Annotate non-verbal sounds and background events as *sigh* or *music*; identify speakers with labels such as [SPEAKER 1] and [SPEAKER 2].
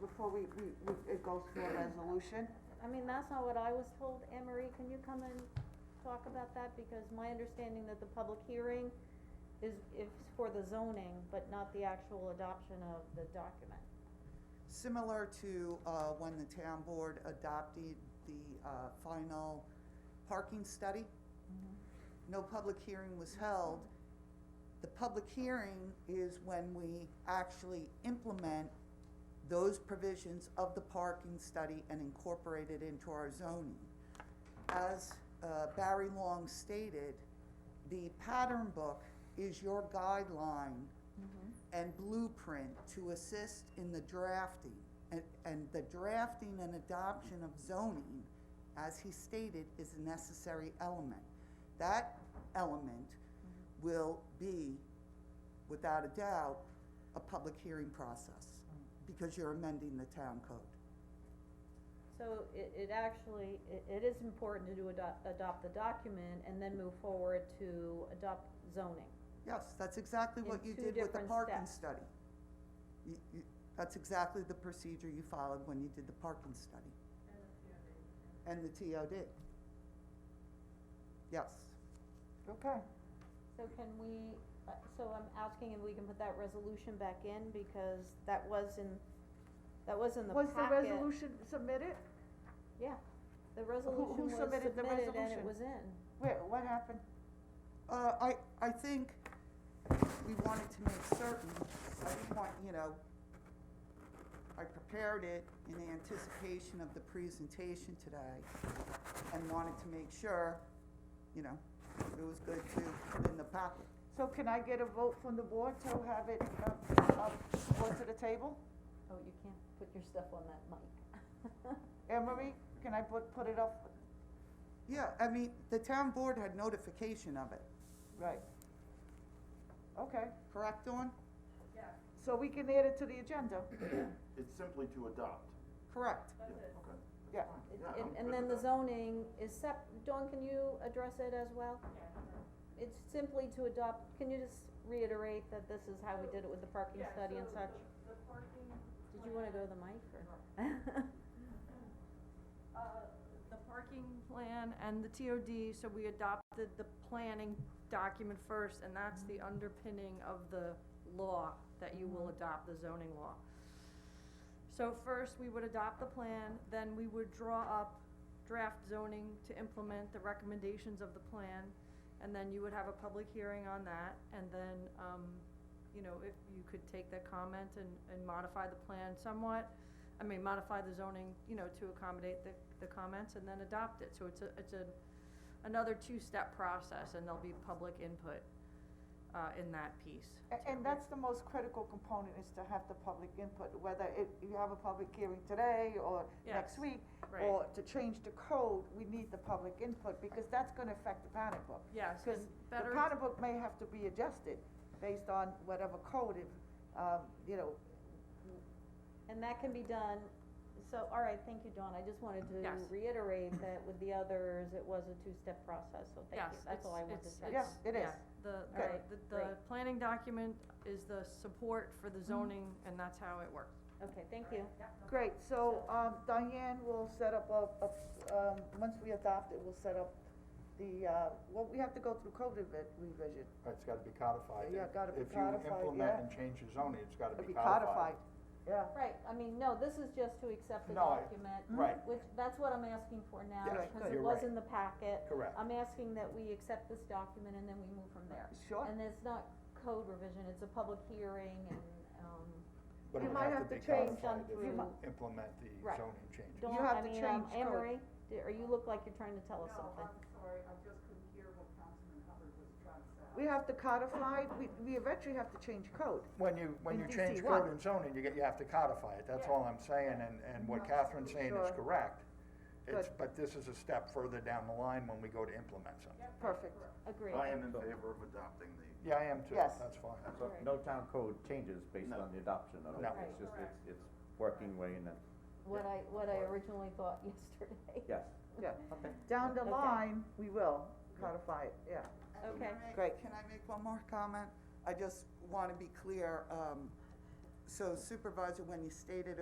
[SPEAKER 1] before we, we, we- it goes through a resolution?
[SPEAKER 2] I mean, that's not what I was told, Anne Marie, can you come and talk about that, because my understanding that the public hearing is, is for the zoning, but not the actual adoption of the document.
[SPEAKER 3] Similar to, uh, when the town board adopted the, uh, final parking study. No public hearing was held. The public hearing is when we actually implement those provisions of the parking study and incorporate it into our zoning. As, uh, Barry Long stated, the pattern book is your guideline and blueprint to assist in the drafting, and, and the drafting and adoption of zoning, as he stated, is a necessary element. That element will be, without a doubt, a public hearing process,
[SPEAKER 2] Mm.
[SPEAKER 3] because you're amending the town code.
[SPEAKER 2] So it, it actually, it, it is important to do adopt, adopt the document and then move forward to adopt zoning.
[SPEAKER 3] Yes, that's exactly what
[SPEAKER 2] In
[SPEAKER 3] you
[SPEAKER 2] two
[SPEAKER 3] did with the
[SPEAKER 2] different
[SPEAKER 3] parking
[SPEAKER 2] steps.
[SPEAKER 3] study. You, you, that's exactly the procedure you followed when you did the parking study. And the TOD. Yes,
[SPEAKER 1] Okay.
[SPEAKER 2] So can we, uh, so I'm asking if we can put that resolution back in, because that was in, that was in the
[SPEAKER 1] Was
[SPEAKER 2] packet.
[SPEAKER 1] the resolution submitted?
[SPEAKER 2] Yeah, the resolution
[SPEAKER 1] who
[SPEAKER 2] was
[SPEAKER 1] submitted the
[SPEAKER 2] submitted and it
[SPEAKER 1] resolution?
[SPEAKER 2] was in.
[SPEAKER 1] Wait, what happened?
[SPEAKER 3] uh, I, I think we wanted to make certain, I didn't want, you know, I prepared it in anticipation of the presentation today and wanted to make sure, you know, it was good to put in the packet.
[SPEAKER 1] So can I get a vote from the board to have it, uh, uh, brought to the table?
[SPEAKER 2] Oh, you can't put your stuff on that mic.
[SPEAKER 1] Emery, can I put, put it up?
[SPEAKER 3] Yeah, I mean, the town board had notification of it,
[SPEAKER 1] Right. Okay,
[SPEAKER 3] correct, Dawn?
[SPEAKER 1] so we can add it to the agenda?
[SPEAKER 4] It's simply to adopt.
[SPEAKER 3] Correct.
[SPEAKER 4] Yeah, okay.
[SPEAKER 1] Yeah.
[SPEAKER 2] It-
[SPEAKER 4] Yeah,
[SPEAKER 2] and-
[SPEAKER 4] I'm
[SPEAKER 2] And
[SPEAKER 4] good
[SPEAKER 2] then the
[SPEAKER 4] with that.
[SPEAKER 2] zoning is sep, Dawn, can you address it as well? It's simply to adopt, can you just reiterate that this is how we did it with the parking study and such?
[SPEAKER 5] The parking,
[SPEAKER 2] Did you wanna go to the mic or?
[SPEAKER 5] uh, the parking plan and the TOD, so we adopted the planning document first, and that's the underpinning of the law, that you will adopt the zoning law. So first, we would adopt the plan, then we would draw up draft zoning to implement the recommendations of the plan, and then you would have a public hearing on that, and then, um, you know, if you could take that comment and, and modify the plan somewhat, I mean, modify the zoning, you know, to accommodate the, the comments and then adopt it, so it's a, it's a, another two-step process, and there'll be public input, uh, in that piece.
[SPEAKER 1] A- And that's the most critical component is to have the public input, whether it, you have a public hearing today or next
[SPEAKER 5] Yes,
[SPEAKER 1] week.
[SPEAKER 5] right.
[SPEAKER 1] Or to change the code, we need the public input because that's gonna affect the pattern book.
[SPEAKER 5] Yes,
[SPEAKER 1] Because
[SPEAKER 5] and
[SPEAKER 1] the
[SPEAKER 5] better,
[SPEAKER 1] pattern book may have to be adjusted based on whatever code it, um, you know,
[SPEAKER 2] And that can be done, so, all right, thank you, Dawn, I just wanted to
[SPEAKER 5] Yes.
[SPEAKER 2] reiterate that with the others, it was a two-step process, so thank
[SPEAKER 5] yes,
[SPEAKER 2] you,
[SPEAKER 5] it's,
[SPEAKER 2] that's all I wanted to
[SPEAKER 5] it's,
[SPEAKER 2] say.
[SPEAKER 5] it's,
[SPEAKER 1] Yeah, it
[SPEAKER 5] yeah,
[SPEAKER 1] is.
[SPEAKER 5] the, the,
[SPEAKER 2] Okay,
[SPEAKER 5] the, the
[SPEAKER 2] great.
[SPEAKER 5] planning document is the support for
[SPEAKER 1] Mm-hmm.
[SPEAKER 5] the zoning, and that's how it works.
[SPEAKER 2] Okay, thank you.
[SPEAKER 1] great, so, um, Diane will set up a, a, um, once we adopt it, we'll set up the, uh, well, we have to go through code revi- revision.
[SPEAKER 6] It's gotta be codified.
[SPEAKER 1] Yeah, gotta be
[SPEAKER 6] If
[SPEAKER 1] codified,
[SPEAKER 6] you
[SPEAKER 1] yeah.
[SPEAKER 6] implement and change the zoning, it's gotta
[SPEAKER 1] It'll
[SPEAKER 6] be codified.
[SPEAKER 1] Yeah,
[SPEAKER 2] Right, I mean, no, this is just to accept the
[SPEAKER 6] No, I-
[SPEAKER 2] document.
[SPEAKER 1] Mm-hmm.
[SPEAKER 6] right.
[SPEAKER 2] Which, that's what I'm asking for now,
[SPEAKER 6] Yes,
[SPEAKER 2] because it
[SPEAKER 6] you're
[SPEAKER 2] was
[SPEAKER 6] right.
[SPEAKER 2] in the packet.
[SPEAKER 6] Correct.
[SPEAKER 1] Uh,
[SPEAKER 2] I'm asking that we accept this document and then we move from there.
[SPEAKER 1] sure.
[SPEAKER 2] And it's not code revision, it's a public hearing and, um,
[SPEAKER 6] But
[SPEAKER 1] You
[SPEAKER 6] it would
[SPEAKER 1] might
[SPEAKER 6] have
[SPEAKER 1] have
[SPEAKER 6] to
[SPEAKER 1] to
[SPEAKER 6] be
[SPEAKER 1] change
[SPEAKER 2] something.
[SPEAKER 6] codified if
[SPEAKER 2] You
[SPEAKER 6] you implement the
[SPEAKER 2] Right.
[SPEAKER 6] zoning changes.
[SPEAKER 2] Dawn,
[SPEAKER 1] have to
[SPEAKER 2] I mean, um,
[SPEAKER 1] change
[SPEAKER 2] Anne
[SPEAKER 1] code.
[SPEAKER 2] Marie, d- or you look like you're trying to tell us something.
[SPEAKER 7] sorry, I just couldn't hear what Councilman Hubbard was trying
[SPEAKER 2] uh,
[SPEAKER 7] to say.
[SPEAKER 1] We have to codify, we, we eventually have to change code.
[SPEAKER 6] When you,
[SPEAKER 1] In
[SPEAKER 6] when you change
[SPEAKER 1] DC1.
[SPEAKER 6] code and zoning, you get, you have to codify it, that's all I'm saying, and, and what
[SPEAKER 1] Mm-hmm.
[SPEAKER 6] Catherine's saying is
[SPEAKER 1] Sure.
[SPEAKER 6] correct. It's,
[SPEAKER 1] Good.
[SPEAKER 6] but this is a step further down the line when we go to implement something.
[SPEAKER 1] Perfect.
[SPEAKER 2] Agreed.
[SPEAKER 4] I am in favor of adopting the,
[SPEAKER 6] Yeah, I am too,
[SPEAKER 1] Yes.
[SPEAKER 6] that's fine.
[SPEAKER 2] All
[SPEAKER 8] So
[SPEAKER 2] right.
[SPEAKER 8] no town code changes based
[SPEAKER 4] No.
[SPEAKER 8] on the adoption of it,
[SPEAKER 6] No.
[SPEAKER 8] it's just, it's, it's working way in the,
[SPEAKER 2] What I, what I originally thought *laughs* yesterday.
[SPEAKER 8] yes.
[SPEAKER 1] Yeah, down the
[SPEAKER 2] Okay.
[SPEAKER 1] line, we will codify it, yeah.
[SPEAKER 2] Okay.
[SPEAKER 3] Can I make-
[SPEAKER 1] Great.
[SPEAKER 3] Can I make one more comment? I just wanna be clear, um, so Supervisor, when you stated